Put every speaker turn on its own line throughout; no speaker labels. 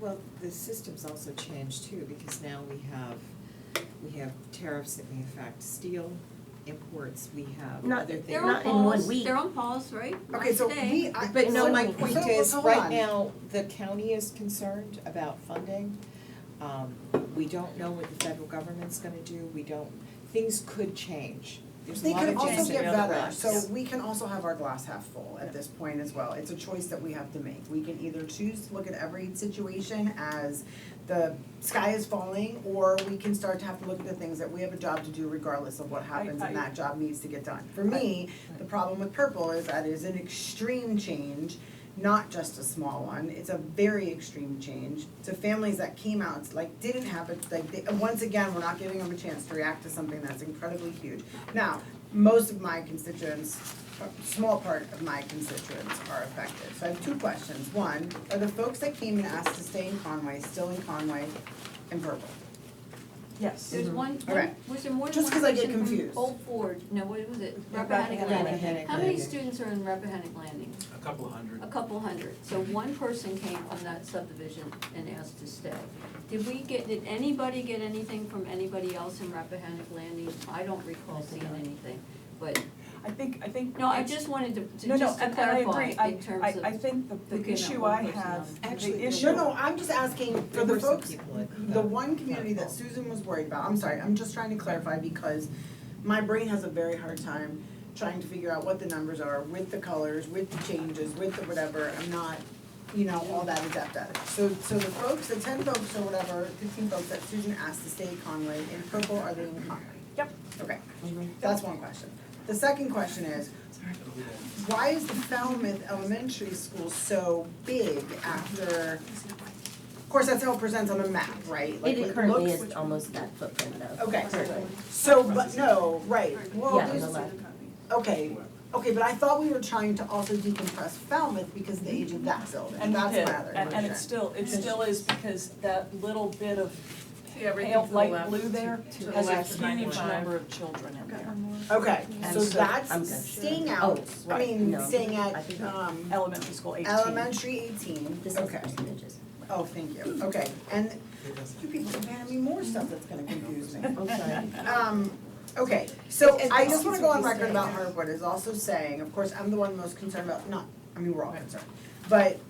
Well, the system's also changed too, because now we have, we have tariffs that may affect steel imports, we have
Not-
other
They're
things.
They're on
not in one
pause,
week.
they're on pause, right?
Okay, so
Not today.
we, I.
But no,
so-
my
So-
point
so-
is,
hold
right
on.
now, the county is concerned about funding. Um, we don't know what the federal government's gonna do, we don't, things could change. There's a
They
lot
can
of change
also
in
get
other
better,
lives.
so we can also have our glass half full at this point as well. It's a choice that we have to make. We can either choose to look at every situation as the sky is falling, or we can start to have to look at the things that we have a job to do regardless of what happens and that job needs to get done. For me, the problem with purple is that it is an extreme change, not just a small one. It's a very extreme change to families that came out, it's like didn't have it, like, they, once again, we're not giving them a chance to react to something that's incredibly huge. Now, most of my constituents, a small part of my constituents are affected. So I have two questions. One, are the folks that came and asked to stay in Conway still in Conway and Purple?
Yes.
Mm-hmm.
There's one,
All right.
was there more than
Just
one
'cause I get
person from
confused.
Old Ford, no, what was it,
Yeah,
Rappahannock
Rappahannock
Landing?
Landing.
How many
Rappahannock
students are in Rappahannock Landing?
A couple of hundred.
A couple hundred, so one person came from that subdivision and asked to stay. Did we get, did anybody get anything from anybody else in Rappahannock Landing? I don't recall seeing anything, but,
I think, I think.
no, I just wanted to,
No,
to
no,
just to
and- and I
clarify
agree. I-
in terms of.
I, I think the, the
looking at
issue
one
I
person on-
have,
Actually,
the
there
issue.
No, no, I'm just asking for
There
the
were some
folks,
people at
the
the
one community that
Capitol.
Susan was worried about, I'm sorry, I'm just trying to clarify because my brain has a very hard time trying to figure out what the numbers are with the colors, with the changes, with the whatever, I'm not, you know, all that adept at it. So, so the folks, the ten folks or whatever, fifteen folks that Susan asked to stay at Conway, in purple, are they in Conway?
Yep.
Okay,
Mm-hmm.
that's one question. The second question is, why is the Falmouth Elementary School so big after, of course, that's how it presents on the map, right? Like,
It currently is almost that footprint though.
Okay, so, but, no, right, well,
Yeah, on
there's-
the left.
okay, okay, but I thought we were trying to also decompress Falmouth because of the age of that building,
And we
that's my
did,
other
and, and it
question.
still, it still is because that little bit of
everything
pale
to the
light
left,
blue there
to the
has a
left of
huge
95.
number of children in there.
Okay,
And
so
so- I'm
that's
good.
staying
Oh,
out, I
right,
mean,
no,
staying
I
at,
think I-
um,
Elementary school eighteen.
elementary eighteen,
This is
okay,
percentages.
oh, thank you, okay, and you people are handing me more stuff that's gonna confuse me.
I'm sorry.
Um, okay, so
And-
I just wanna go on record
and-
about Harwood is also saying, of course, I'm the one most concerned about, not, I mean, we're all concerned, but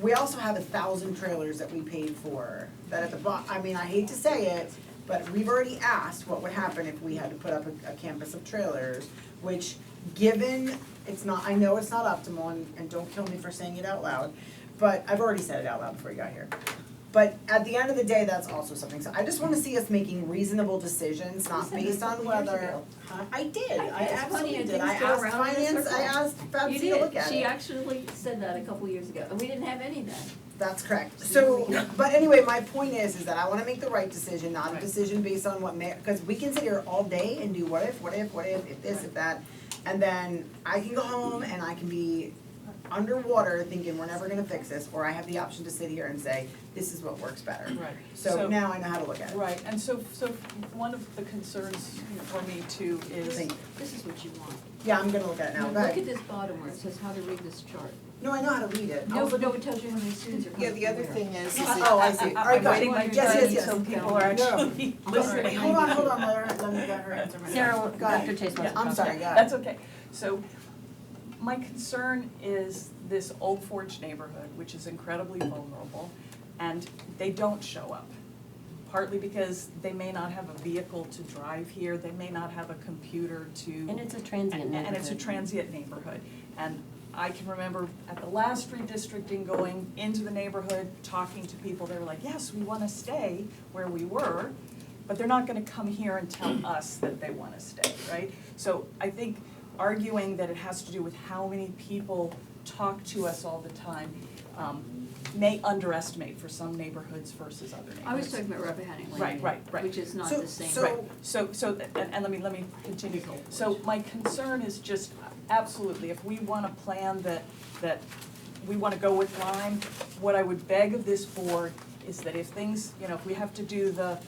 we also have a thousand trailers that we paid for, that at the bo- I mean, I hate to say it, but we've already asked what would happen if we had to put up a, a campus of trailers, which, given, it's not, I know it's not optimal, and, and don't kill me for saying it out loud, but I've already said it out loud before you got here. But at the end of the day, that's also something, so I just wanna see us making reasonable decisions,
You
not
said this
based
a
on
couple
whether.
years ago.
Huh? I did,
I
I
guess plenty
absolutely
of
did, I
things go
asked
around in a
finance, I
circle.
asked
You
Betsy to
did,
look at it.
she actually said that a couple years ago, and we didn't have any then.
That's correct. So, but anyway, my point is, is that I wanna make the right decision, not a decision based on what may, cause we can sit here all day and do what if, what if, what if, if this, if that. And then I can go home and I can be underwater thinking we're never gonna fix this, or I have the option to sit here and say, this is what works better.
Right.
So now I know how to look at it.
Right, and so, so one of the concerns for me too is
Thank you.
This is what you want.
Yeah, I'm gonna look at it now,
Look at
but,
this bottom where it says how to read this chart.
no, I know how to read it.
No, but no, it tells you how many students are coming
Yeah, the other
from where.
thing is, is that-
Oh, I see.
I-
Alright,
I'm
got it.
waiting my
Yes, yes,
turn,
yes.
so people are
No.
actually listening.
Wait, hold on, hold on, let her, let me let her answer my question.
Sarah,
Go ahead.
Dr. Chase wants to
Yeah,
talk.
I'm sorry, go ahead.
That's okay. So my concern is this Old Forge neighborhood, which is incredibly vulnerable, and they don't show up. Partly because they may not have a vehicle to drive here, they may not have a computer to
And it's a transient
and- And it's a
neighborhood.
transient neighborhood. And I can remember at the last redistricting, going into the neighborhood, talking to people, they were like, yes, we wanna stay where we were, but they're not gonna come here and tell us that they wanna stay, right? So I think arguing that it has to do with how many people talk to us all the time, um, may underestimate for some neighborhoods versus other neighborhoods.
I was talking about Rappahannock Landing.
Right, right, right.
Which is not
So-
the same.
so-
Right, so, so, th- and, and let me, let me continue. So my concern is just, absolutely, if we want a plan that, that we wanna go with Lime, what I would beg of this board is that if things, you know, if we have to do the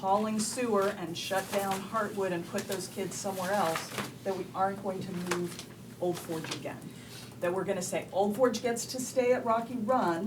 hauling sewer and shut down Hartwood and put those kids somewhere else, that we aren't going to move Old Forge again. That we're gonna say, Old Forge gets to stay at Rocky Run,